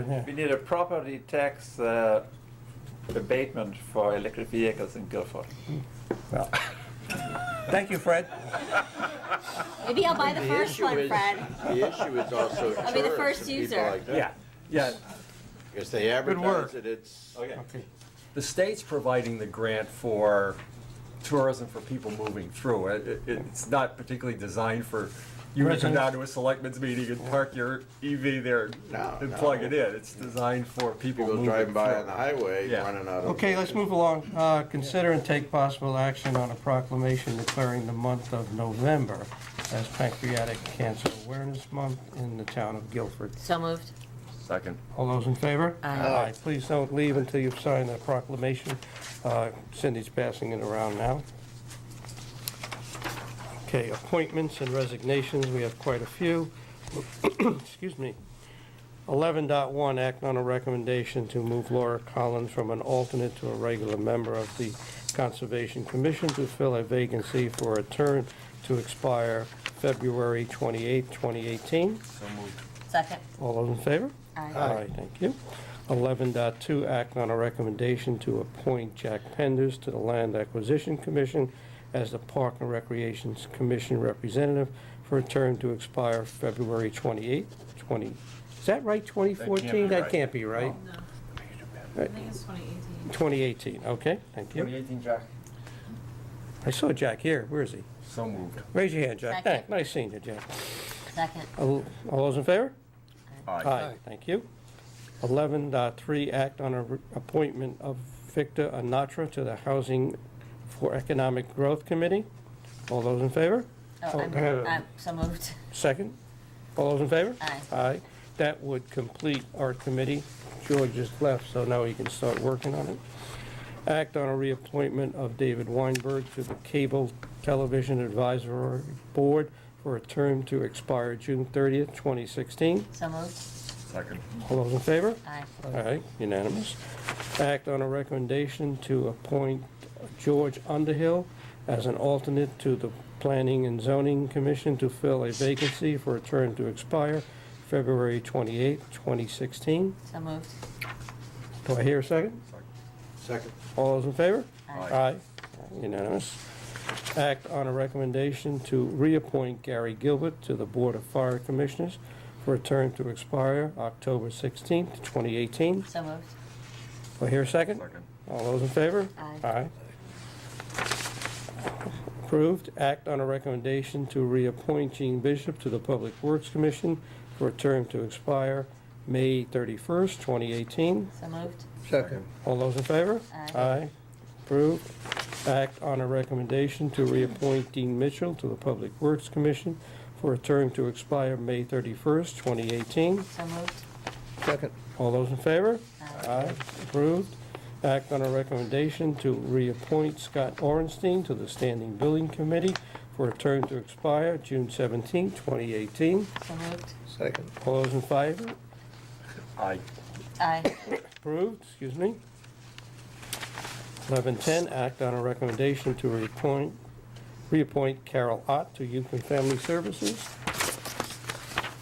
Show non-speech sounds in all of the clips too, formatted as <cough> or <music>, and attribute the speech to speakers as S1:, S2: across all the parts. S1: Yeah.
S2: We need a property tax uh, abatement for electric vehicles in Guilford.
S1: Well, Thank you, Fred.
S3: Maybe I'll buy the
S4: The
S3: first
S4: issue
S3: one,
S4: is-
S3: Fred.
S4: The issue is also
S3: I'll be the first
S4: tourists and people
S3: user.
S4: like that.
S5: Yeah,
S1: Yeah,
S4: Because they
S1: work.
S4: advertise it, it's,
S2: Okay.
S5: the state's providing the grant for tourism for people moving through. It- it- It's not particularly designed for you to come
S1: Residents.
S5: down to a selectmen's meeting and park your EV there
S4: No,
S5: and
S4: no.
S5: plug it in. It's designed for
S4: people
S5: people moving
S4: driving by on the
S5: through.
S4: highway,
S5: Yeah.
S4: running out of.
S1: okay, let's move along. Uh, Consider and take possible action on a proclamation declaring the month of November as Pancreatic Cancer Awareness Month in the town of Guilford.
S3: So moved.
S5: Second.
S1: All those in favor?
S3: Aye.
S1: Please don't leave until you've signed the proclamation. Uh, Cindy's passing it around now. Okay, appointments and resignations, we have quite a few. <clears throat> Excuse me. 11.1, act on a recommendation to move Laura Collins from an alternate to a regular member of the Conservation Commission to fill a vacancy for a term to expire February 28, 2018.
S3: Second.
S1: All those in favor?
S3: Aye.
S1: All right, thank you. 11.2, act on a recommendation to appoint Jack Penders to the Land Acquisition Commission as the Park and Recreations Commission representative for a term to expire February 28, 20, is that right, 2014? That
S5: right.
S1: can't be right.
S6: I think it's 2018.
S1: 2018, okay, thank you.
S5: 2018, Jack?
S1: I saw Jack here, where is he?
S5: So moved.
S1: Raise your hand, Jack.
S3: Second.
S1: Hey, Nice seeing you, Jack.
S3: Second.
S1: All all those in favor?
S5: Aye.
S1: Aye, thank you. 11.3, act on a re- appointment of Victor Anatra to the Housing for Economic Growth Committee. All those in favor?
S3: Oh, I'm,
S1: uh,
S3: I'm, so moved.
S1: Second? All those in favor?
S3: Aye.
S1: Aye. That would complete our committee. George just left, so now he can start working on it. Act on a reappointment of David Weinberg to the Cable Television Advisory Board for a term to expire June 30th, 2016.
S3: So moved.
S5: Second.
S1: All those in favor?
S3: Aye.
S1: All right, unanimous. Act on a recommendation to appoint George Underhill as an alternate to the Planning and Zoning Commission to fill a vacancy for a term to expire February 28, 2016.
S3: So moved.
S1: Do I hear a second?
S4: Second.
S1: All those in favor?
S3: Aye.
S1: Unanimous. Act on a recommendation to reappoint Gary Gilbert to the Board of Fire Commissioners for a term to expire October 16, 2018.
S3: So moved.
S1: Do I hear a second? All those in favor?
S3: Aye.
S1: Approved. Act on a recommendation to reappoint Gene Bishop to the Public Works Commission for a term to expire May 31st, 2018.
S3: So moved.
S4: Second.
S1: All those in favor?
S3: Aye.
S1: Approved. Act on a recommendation to reappoint Dean Mitchell to the Public Works Commission for a term to expire May 31st, 2018.
S3: So moved.
S4: Second.
S1: All those in favor?
S3: Aye.
S1: Approved. Act on a recommendation to reappoint Scott Orenstein to the Standing Billing Committee for a term to expire June 17, 2018.
S3: So moved.
S4: Second.
S1: All those in favor?
S5: Aye.
S3: Aye.
S1: Approved, excuse me. 1110, act on a recommendation to reappoint, reappoint Carol Ott to Youth and Family Services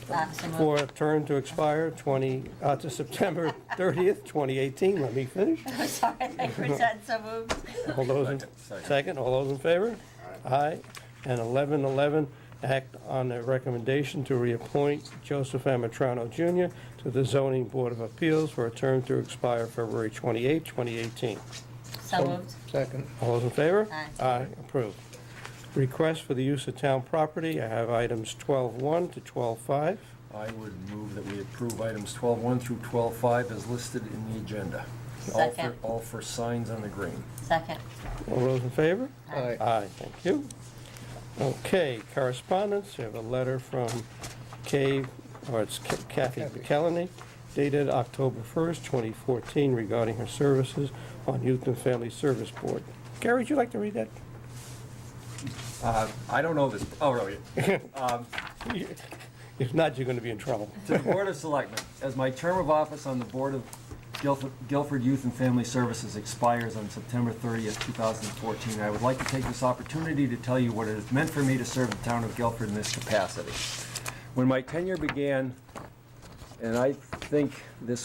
S3: Uh, so moved.
S1: for a term to expire 20, uh, to September 30th, 2018. Let me finish.
S3: I'm <laughs> sorry. I said so moved.
S1: All those, in-
S5: Second.
S1: second, all those in favor? Aye. And 1111, act on a recommendation to reappoint Joseph Amatrano Jr. to the Zoning Board of Appeals for a term to expire February 28, 2018.
S3: So moved.
S4: Second.
S1: All those in favor?
S3: Aye.
S1: approved. Request for the use of town property, I have items 12-1 to 12-5.
S5: I would move that we approve items 12.1 through 12.5 as listed in the agenda. All for-
S3: Second.
S5: All for signs on the green.
S3: Second.
S1: All those in favor?
S3: Aye.
S1: Aye, thank you. Okay, correspondence, we have a letter from Kay, or it's Ca- Kathy McKelney, dated October 1st, 2014, regarding her services on Youth and Family Service Board. Gary, would you like to read that?
S5: Uh, I don't know this,
S4: <laughs>
S5: oh, really? Um,
S1: If not, you're going to be in trouble.
S5: To the Board of Selectmen, as my term of office on the Board of Guilf- Guilford Youth and Family Services expires on September 30th, 2014, I would like to take this opportunity to tell you what it has meant for me to serve the town of Guilford in this capacity. When my tenure began, and I think this